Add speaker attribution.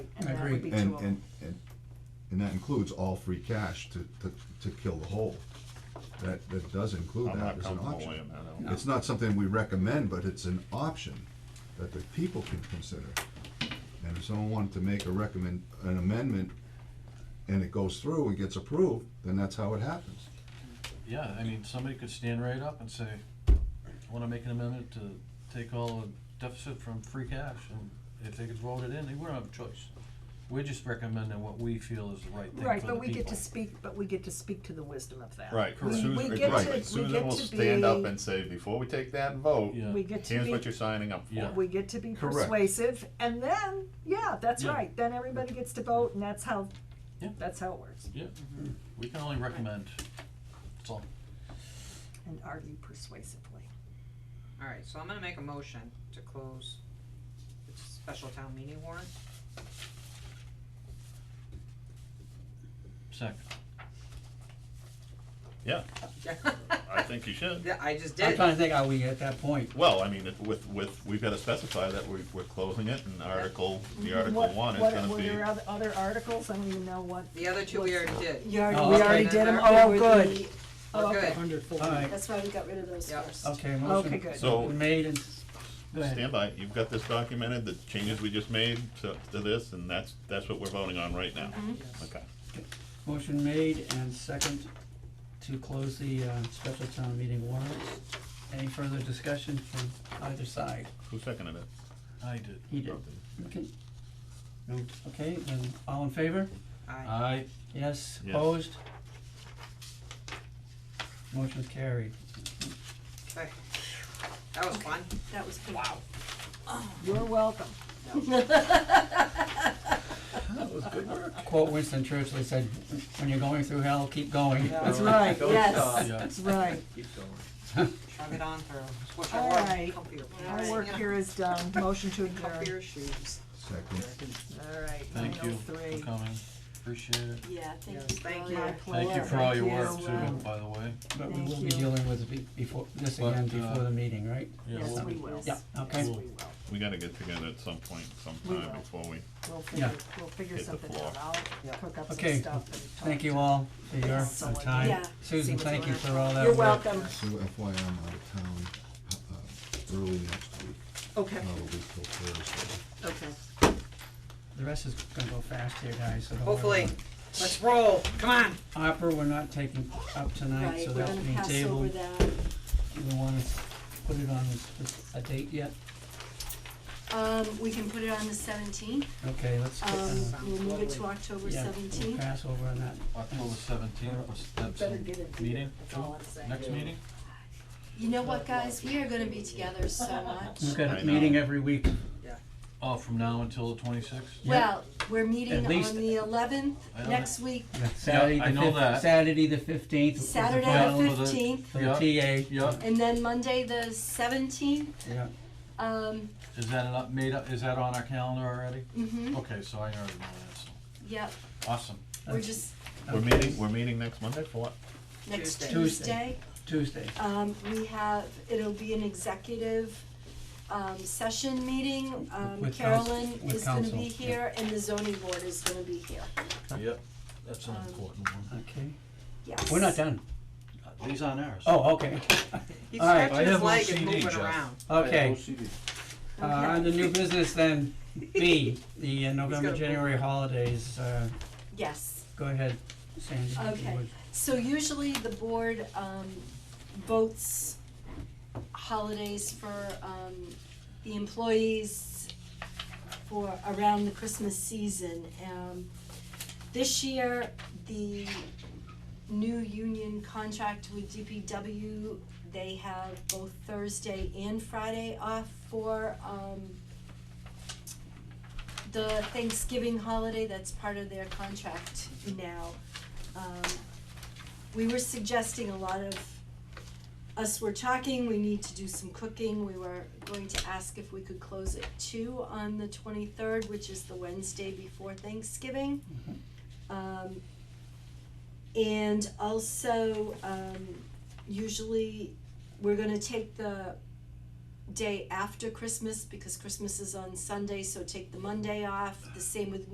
Speaker 1: that would be
Speaker 2: agree.
Speaker 1: too
Speaker 3: And,
Speaker 1: old.
Speaker 3: and, and, and that includes all free cash to, to, to kill the whole. That, that does include
Speaker 4: I'm
Speaker 3: that
Speaker 4: not
Speaker 3: as an
Speaker 4: comfortable with
Speaker 3: option.
Speaker 4: him, I don't.
Speaker 3: It's not something we recommend, but it's an option that the people can consider. And if someone wanted to make a recommend, an amendment, and it goes through and gets approved, then that's how it happens.
Speaker 5: Yeah, I mean, somebody could stand right up and say, I wanna make an amendment to take all the deficit from free cash, and if they could vote it in, they wouldn't have a choice. We're just recommending what we feel is the right thing for the people.
Speaker 1: Right, but we get to speak, but we get to speak to the wisdom of that.
Speaker 4: Right,
Speaker 5: Correct.
Speaker 4: Susan,
Speaker 1: We
Speaker 4: right,
Speaker 1: get
Speaker 3: to-
Speaker 4: right.
Speaker 1: we
Speaker 4: Susan
Speaker 1: get
Speaker 4: will
Speaker 1: to
Speaker 4: stand up
Speaker 1: be-
Speaker 4: and say, before we take that vote,
Speaker 5: Yeah.
Speaker 1: We get to
Speaker 4: here's what
Speaker 1: be,
Speaker 4: you're signing up
Speaker 5: Yeah.
Speaker 4: for.
Speaker 1: we get to be
Speaker 3: Correct.
Speaker 1: persuasive, and then, yeah, that's
Speaker 5: Yeah.
Speaker 1: right, then everybody gets to vote, and that's how,
Speaker 5: Yeah.
Speaker 1: that's how it works,
Speaker 5: Yeah, we can only recommend, that's all.
Speaker 1: and argue persuasively.
Speaker 6: Alright, so I'm gonna make a motion to close the special town meeting warrant.
Speaker 5: Second,
Speaker 4: Yeah, I think you should.
Speaker 6: Yeah, I just
Speaker 2: I'm
Speaker 6: did.
Speaker 2: trying to think, are we at that point?
Speaker 4: Well, I mean, if- with, with, we've gotta specify that we, we're closing it and article, the article
Speaker 1: What-
Speaker 4: one is
Speaker 1: what-
Speaker 4: gonna
Speaker 1: Were
Speaker 4: be.
Speaker 1: there oth- other articles, I don't even know what.
Speaker 6: The other two we already did.
Speaker 1: You already,
Speaker 2: Oh,
Speaker 1: we
Speaker 2: okay.
Speaker 1: already did them,
Speaker 6: Then
Speaker 1: oh,
Speaker 7: With
Speaker 1: good,
Speaker 7: the-
Speaker 1: oh,
Speaker 6: We're
Speaker 1: okay.
Speaker 6: good.
Speaker 7: Wonderful.
Speaker 2: All right.
Speaker 7: That's why we got rid of those
Speaker 6: Yep.
Speaker 4: Oh.
Speaker 7: first.
Speaker 2: Okay,
Speaker 1: Okay,
Speaker 2: motion
Speaker 1: good.
Speaker 4: So-
Speaker 2: been made and,
Speaker 5: go ahead.
Speaker 4: Stand by, you've got this documented, the changes we just made to, to this, and that's, that's what we're voting on right now.
Speaker 1: Mm-hmm.
Speaker 4: Okay.
Speaker 2: motion made and second to close the, uh, special town meeting warrant. Any further discussion from either side?
Speaker 4: Who seconded it?
Speaker 5: I did.
Speaker 2: He did. Okay. No, Okay, then, all in favor?
Speaker 6: Aye.
Speaker 5: I,
Speaker 2: Yes,
Speaker 4: Yes.
Speaker 2: opposed? Motion's carried.
Speaker 6: Okay. That was fun.
Speaker 7: That was good. Wow.
Speaker 1: You're welcome.
Speaker 4: That was good work.
Speaker 2: Quote Winston Churchill, he said, when you're going through hell, keep going.
Speaker 1: That's right,
Speaker 4: uh,
Speaker 7: Yes.
Speaker 5: yeah,
Speaker 1: that's right.
Speaker 6: Shove it on through. It's what you
Speaker 1: All
Speaker 6: want.
Speaker 1: right.
Speaker 6: Comfier.
Speaker 1: Our work here is done, motion to adjourn.
Speaker 6: Comfier shoes.
Speaker 3: Second.
Speaker 1: All right, nine
Speaker 5: thank
Speaker 1: oh
Speaker 5: you
Speaker 1: three.
Speaker 5: for coming, appreciate it.
Speaker 7: Yeah, thank you.
Speaker 6: Yes, thank
Speaker 7: for
Speaker 6: you.
Speaker 7: all your
Speaker 6: Thank
Speaker 5: Thank you
Speaker 7: work.
Speaker 5: for all your
Speaker 1: Thank
Speaker 5: work
Speaker 1: you.
Speaker 5: too, by the way.
Speaker 2: But we
Speaker 1: Thank
Speaker 2: will be
Speaker 1: you.
Speaker 2: dealing with it be- before, this again
Speaker 5: But, uh,
Speaker 2: before the meeting, right?
Speaker 5: Yeah,
Speaker 1: Yes,
Speaker 5: we'll-
Speaker 1: we will.
Speaker 2: Yeah, okay.
Speaker 1: Yes, we will.
Speaker 4: We gotta get together at some point,
Speaker 1: We
Speaker 4: sometime
Speaker 1: will.
Speaker 4: before we,
Speaker 1: We'll
Speaker 2: Yeah.
Speaker 1: figure, we'll figure
Speaker 4: Hit the
Speaker 1: something
Speaker 4: floor.
Speaker 1: out. I'll cook up some stuff
Speaker 2: Okay,
Speaker 1: and talk.
Speaker 2: Thank you all for your
Speaker 1: Yeah.
Speaker 2: uh, time.
Speaker 7: Yeah.
Speaker 2: Susan,
Speaker 6: See
Speaker 2: thank
Speaker 6: what's
Speaker 2: you for
Speaker 6: going
Speaker 2: all
Speaker 6: on.
Speaker 2: that
Speaker 1: You're
Speaker 2: work.
Speaker 1: welcome.
Speaker 3: So FYI, I'm out of town, uh, early next week,
Speaker 1: Okay,
Speaker 3: not a week till Thursday.
Speaker 1: okay.
Speaker 2: The rest is gonna go fast here, guys, so don't worry
Speaker 6: Hopefully.
Speaker 2: about it.
Speaker 6: Let's roll. Come on.
Speaker 2: Opera, we're not taking up tonight,
Speaker 7: Right,
Speaker 2: so
Speaker 7: we're
Speaker 2: that's
Speaker 7: gonna
Speaker 2: being
Speaker 7: pass over
Speaker 2: tabled.
Speaker 7: that.
Speaker 2: Do we wanna s- put it on a- a date yet?
Speaker 7: Um, we can put it on the seventeenth,
Speaker 2: Okay, let's get,
Speaker 7: um,
Speaker 2: uh,
Speaker 7: we'll move it to October
Speaker 2: yeah, we'll
Speaker 7: seventeenth.
Speaker 2: pass over on that.
Speaker 5: October seventeenth was Deb's meeting, too, next meeting?
Speaker 7: You know what, guys, we are gonna be together so much.
Speaker 2: We've got
Speaker 4: I
Speaker 2: a meeting
Speaker 4: know.
Speaker 2: every week.
Speaker 5: Oh, from now until the twenty-sixth?
Speaker 7: Well, we're meeting
Speaker 2: At least-
Speaker 7: on the eleventh,
Speaker 5: I don't-
Speaker 7: next week,
Speaker 2: Saturday
Speaker 5: I
Speaker 2: the
Speaker 5: know
Speaker 2: fif-
Speaker 5: that.
Speaker 2: Saturday the fifteenth.
Speaker 7: Saturday the
Speaker 5: final of the-
Speaker 7: fifteenth,
Speaker 2: For the
Speaker 5: Yeah.
Speaker 2: TA,
Speaker 5: Yeah,
Speaker 7: and then Monday the seventeenth,
Speaker 2: yeah.
Speaker 7: um,
Speaker 5: is that an up- made up, is that on our calendar already?
Speaker 7: mhm,
Speaker 5: Okay, so I already know that,
Speaker 7: yep,
Speaker 5: so, awesome.
Speaker 7: we're just,
Speaker 4: we're meeting, we're meeting next Monday for what?
Speaker 7: next
Speaker 6: Tuesday.
Speaker 2: Tuesday.
Speaker 7: Tuesday,
Speaker 2: Tuesday.
Speaker 7: um, we have, it'll be an executive, um, session meeting, um,
Speaker 2: With counsel-
Speaker 7: Carolyn
Speaker 2: with
Speaker 7: is gonna
Speaker 2: counsel,
Speaker 7: be
Speaker 2: yeah.
Speaker 7: here, and the zoning board is gonna be here,
Speaker 5: Yep, that's an
Speaker 7: Um,
Speaker 5: important one.
Speaker 2: Okay.
Speaker 7: yes.
Speaker 2: We're not done.
Speaker 5: These aren't ours.
Speaker 2: Oh, okay.
Speaker 6: He's
Speaker 2: All right.
Speaker 5: I
Speaker 6: stretching his
Speaker 5: have
Speaker 6: leg and
Speaker 5: OCD,
Speaker 6: moving
Speaker 5: Jeff.
Speaker 6: around.
Speaker 2: Okay. Uh,
Speaker 7: Okay.
Speaker 2: on the new business then, B, the uh, November,
Speaker 6: gonna-
Speaker 2: January holidays, uh,
Speaker 7: Yes,
Speaker 2: go ahead, Sandy. if you
Speaker 7: Okay.
Speaker 2: would.
Speaker 7: so usually the board, um, votes holidays for, um, the employees for around the Christmas season, um, this year, the new union contract with DPW, they have both Thursday and Friday off for, um, the Thanksgiving holiday, that's part of their contract now. Um, we were suggesting a lot of, us were talking, we need to do some cooking, we were going to ask if we could close at two on the twenty-third, which is the Wednesday before Thanksgiving. Um, and also, um, usually, we're gonna take the day after Christmas, because Christmas is on Sunday, so take the Monday off, the same with